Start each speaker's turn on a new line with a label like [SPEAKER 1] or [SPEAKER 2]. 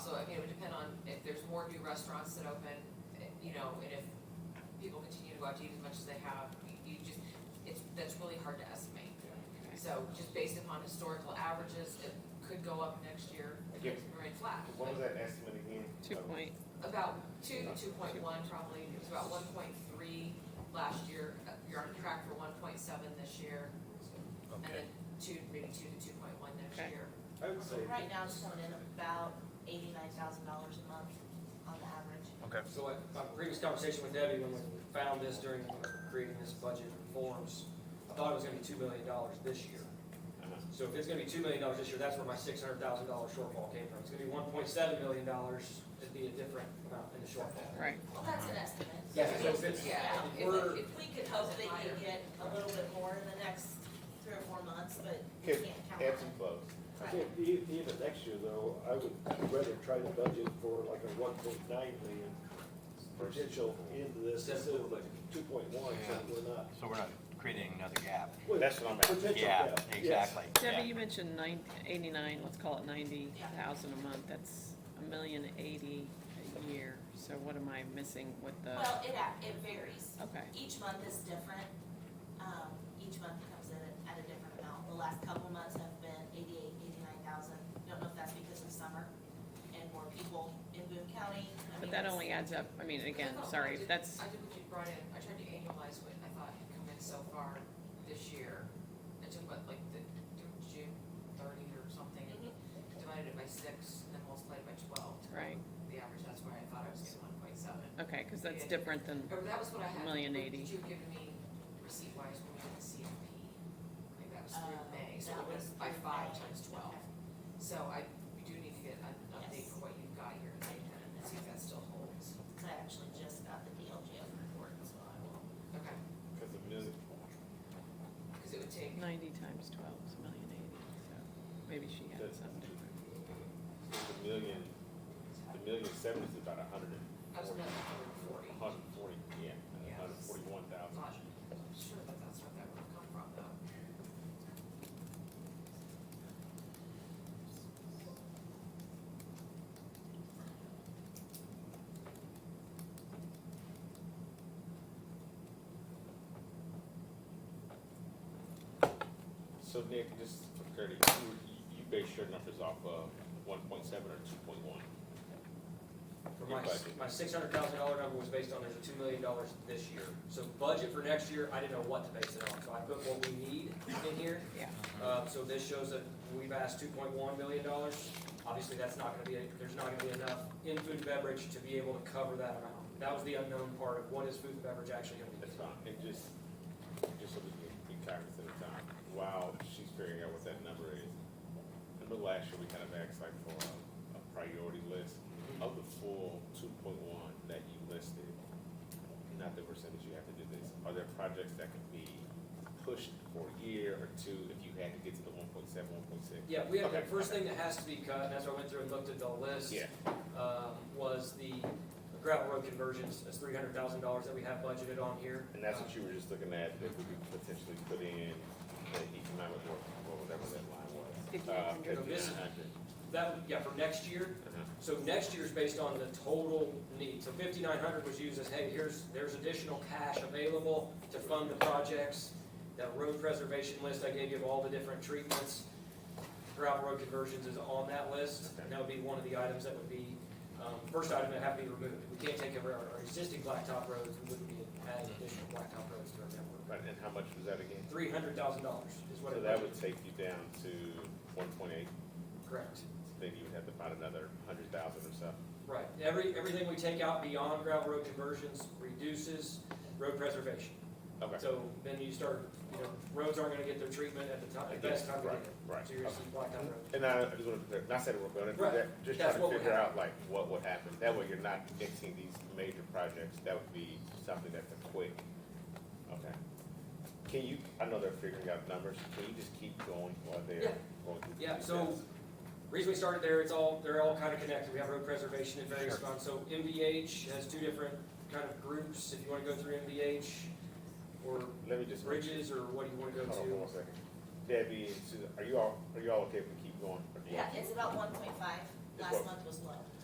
[SPEAKER 1] more new restaurants that open, eh, you know, and if people continue to go out to eat as much as they have, you- you just, it's, that's really hard to estimate. So just based upon historical averages, it could go up next year, it
[SPEAKER 2] Yeah.
[SPEAKER 1] could remain flat.
[SPEAKER 2] What was that estimate again? Oh,
[SPEAKER 3] Two point,
[SPEAKER 1] About two, two point one probably, it was about one point three last year, Uh, you're on track for one point seven this year, and
[SPEAKER 4] Okay,
[SPEAKER 1] then two, maybe two to two point one next
[SPEAKER 3] Okay.
[SPEAKER 1] year.
[SPEAKER 2] I would
[SPEAKER 5] So
[SPEAKER 2] say,
[SPEAKER 5] right now it's coming in about eighty-nine thousand dollars a month on the average.
[SPEAKER 4] okay.
[SPEAKER 6] So like, my previous conversation with Debbie, when we found this during creating this budget forms, I thought it was gonna be two million dollars this year. So if it's gonna be two million dollars this year, that's where my six hundred thousand dollar shortfall came from. It's gonna be one point seven million dollars, it'd be a different amount in the shortfall.
[SPEAKER 3] right.
[SPEAKER 5] Well, that's an estimate.
[SPEAKER 6] Yeah, so if it's-
[SPEAKER 1] Yeah,
[SPEAKER 6] if
[SPEAKER 1] if,
[SPEAKER 6] we're-
[SPEAKER 1] if we could
[SPEAKER 5] Hope
[SPEAKER 1] hope
[SPEAKER 5] they
[SPEAKER 1] it
[SPEAKER 5] can
[SPEAKER 1] higher.
[SPEAKER 5] get a little bit more in the next three or four months, but we
[SPEAKER 2] Okay,
[SPEAKER 5] can't count on
[SPEAKER 2] ebbs
[SPEAKER 5] it.
[SPEAKER 2] and flows.
[SPEAKER 5] Right.
[SPEAKER 7] I think e- even next year though, I would rather try to budget for like a one point nine million potential into this instead of like two point one, so we're not.
[SPEAKER 4] So we're not creating another gap.
[SPEAKER 7] well,
[SPEAKER 2] That's what I'm at.
[SPEAKER 7] Potential
[SPEAKER 4] Yeah,
[SPEAKER 7] gap, yes.
[SPEAKER 4] exactly.
[SPEAKER 3] Debbie, you mentioned nine, eighty-nine, let's call it ninety thousand a month, that's a million eighty a year. So what am I missing with
[SPEAKER 6] Uh.
[SPEAKER 3] the,
[SPEAKER 5] Well, it, a- it varies.
[SPEAKER 3] okay,
[SPEAKER 5] Each month is different. Um, each month comes in at- at a different amount. The last couple months have been eighty-eight, eighty-nine thousand. Don't know if that's because of summer and more people in Boone County. I mean,
[SPEAKER 3] but that
[SPEAKER 5] it's-
[SPEAKER 3] only adds up, I mean, again,
[SPEAKER 1] I thought I
[SPEAKER 3] sorry,
[SPEAKER 1] did-
[SPEAKER 3] that's,
[SPEAKER 1] I did what you brought in, I tried to annualize what I thought had come in so far this year. I took what, like the, June thirty or something,
[SPEAKER 3] Mm-hmm.
[SPEAKER 1] and divided it by six, and then multiplied it by twelve. to
[SPEAKER 3] right,
[SPEAKER 1] The average, that's where I thought I was getting one point seven.
[SPEAKER 3] okay, cause that's
[SPEAKER 1] Yeah.
[SPEAKER 3] different than,
[SPEAKER 1] Or that was what I had.
[SPEAKER 3] Million
[SPEAKER 1] what
[SPEAKER 3] eighty.
[SPEAKER 1] You had given me receipt wise when we did the CFP, like that was through
[SPEAKER 5] Uh,
[SPEAKER 1] May, so
[SPEAKER 5] that
[SPEAKER 1] it was
[SPEAKER 5] was
[SPEAKER 1] by
[SPEAKER 5] through
[SPEAKER 1] five
[SPEAKER 5] May.
[SPEAKER 1] times twelve.
[SPEAKER 5] Okay.
[SPEAKER 1] So I, we do need to get an update
[SPEAKER 5] Yes.
[SPEAKER 1] for what you've got here, and see if that still holds.
[SPEAKER 5] Cause I actually just got the DLGF report, so I will.
[SPEAKER 1] Okay,
[SPEAKER 2] Because of music.
[SPEAKER 1] because it would take
[SPEAKER 3] ninety times twelve is a million eighty, so maybe she had
[SPEAKER 2] That's-
[SPEAKER 3] something.
[SPEAKER 2] The million, the million seven is about a hundred
[SPEAKER 1] I was
[SPEAKER 2] and
[SPEAKER 1] another hundred and forty.
[SPEAKER 2] forty, a hundred and forty, yeah,
[SPEAKER 1] Yeah.
[SPEAKER 2] a hundred and forty-one
[SPEAKER 1] I'm
[SPEAKER 2] thousand.
[SPEAKER 1] not sure that that's where that would have come from though.
[SPEAKER 2] So Nick, just for clarity, you, you base your numbers off of one point seven or two point one? For your
[SPEAKER 6] My,
[SPEAKER 2] budget,
[SPEAKER 6] my six hundred thousand dollar number was based on there's a two million dollars this year. So budget for next year, I didn't know what to base it on, so I put what we need in here.
[SPEAKER 3] Yeah.
[SPEAKER 6] Uh, so this shows that we've asked two point one million dollars. Obviously, that's not gonna be, there's not gonna be enough in food and beverage to be able to cover that amount. That was the unknown part of what is food and beverage actually gonna
[SPEAKER 2] that's
[SPEAKER 6] be.
[SPEAKER 2] fine, and just, just so we can be cognizant of time, while she's figuring out what that number is. Remember last year, we kind of asked like for a, a priority list of the full two point one that you listed, not the percentage you have to do this, are there projects that could be pushed for a year or two if you had to get to the one point seven, one point six?
[SPEAKER 6] Yeah, we have, the
[SPEAKER 2] Okay.
[SPEAKER 6] first thing that has to be cut, and that's why I went through and looked at the list.
[SPEAKER 2] Yeah,
[SPEAKER 6] um, was the gravel road conversions, that's three hundred thousand dollars that we have budgeted on here.
[SPEAKER 2] And that's what you were just looking at, that we could potentially put in the economic work, or whatever that line was. Uh, Uh-huh.
[SPEAKER 3] 5,900.
[SPEAKER 6] So this is-
[SPEAKER 2] 5,900.
[SPEAKER 6] That, yeah, for next year,
[SPEAKER 2] Uh-huh.
[SPEAKER 6] so next year's based on the total need, so fifty-nine hundred was used as, hey, here's, there's additional cash available to fund the projects. That road preservation list I gave you of all the different treatments, gravel road conversions is on that list, and that would be one of the items that would be, um, first item that have to be removed. We can't take over our our existing blacktop roads, we wouldn't be adding additional blacktop roads to our network.
[SPEAKER 2] Right, and how much was that again?
[SPEAKER 6] Three hundred thousand dollars is what
[SPEAKER 2] So
[SPEAKER 6] it
[SPEAKER 2] that
[SPEAKER 6] was,
[SPEAKER 2] would take you down to one point eight,
[SPEAKER 6] correct,
[SPEAKER 2] then you would have to find another hundred thousand or so.
[SPEAKER 6] right. Every, everything we take out beyond gravel road conversions reduces road preservation.
[SPEAKER 2] Okay.
[SPEAKER 6] So then you start, you know, roads aren't gonna get their treatment at the time, at the best time of
[SPEAKER 2] Right,
[SPEAKER 6] day.
[SPEAKER 2] right.
[SPEAKER 6] So you're gonna see blacktop roads.
[SPEAKER 2] And I, I just wanted to, clear- not say it real quick, I didn't
[SPEAKER 6] Right.
[SPEAKER 2] do that, just trying
[SPEAKER 6] That's
[SPEAKER 2] to
[SPEAKER 6] what would
[SPEAKER 2] figure out
[SPEAKER 6] happen.
[SPEAKER 2] like what would happen. That way you're not mixing these major projects, that would be something that's a quick, okay. Can you, I know they're figuring out numbers, can you just keep going while
[SPEAKER 6] Yeah.
[SPEAKER 2] they're going through?
[SPEAKER 6] Yeah,
[SPEAKER 2] these
[SPEAKER 6] so
[SPEAKER 2] steps?
[SPEAKER 6] Reason we started there, it's all, they're all kind of connected. We have road preservation in various
[SPEAKER 4] Sure.
[SPEAKER 6] funds. So MVH has two different kind of groups, if you wanna go through MVH or
[SPEAKER 2] Let me just.
[SPEAKER 6] bridges or what do you wanna go
[SPEAKER 2] Hold on
[SPEAKER 6] to?
[SPEAKER 2] one second. Debbie and Susan, are you all, are you all okay if we keep going? Or do you-
[SPEAKER 5] Yeah, it's about one point five.
[SPEAKER 2] It's
[SPEAKER 5] Last
[SPEAKER 2] what-
[SPEAKER 5] month was low.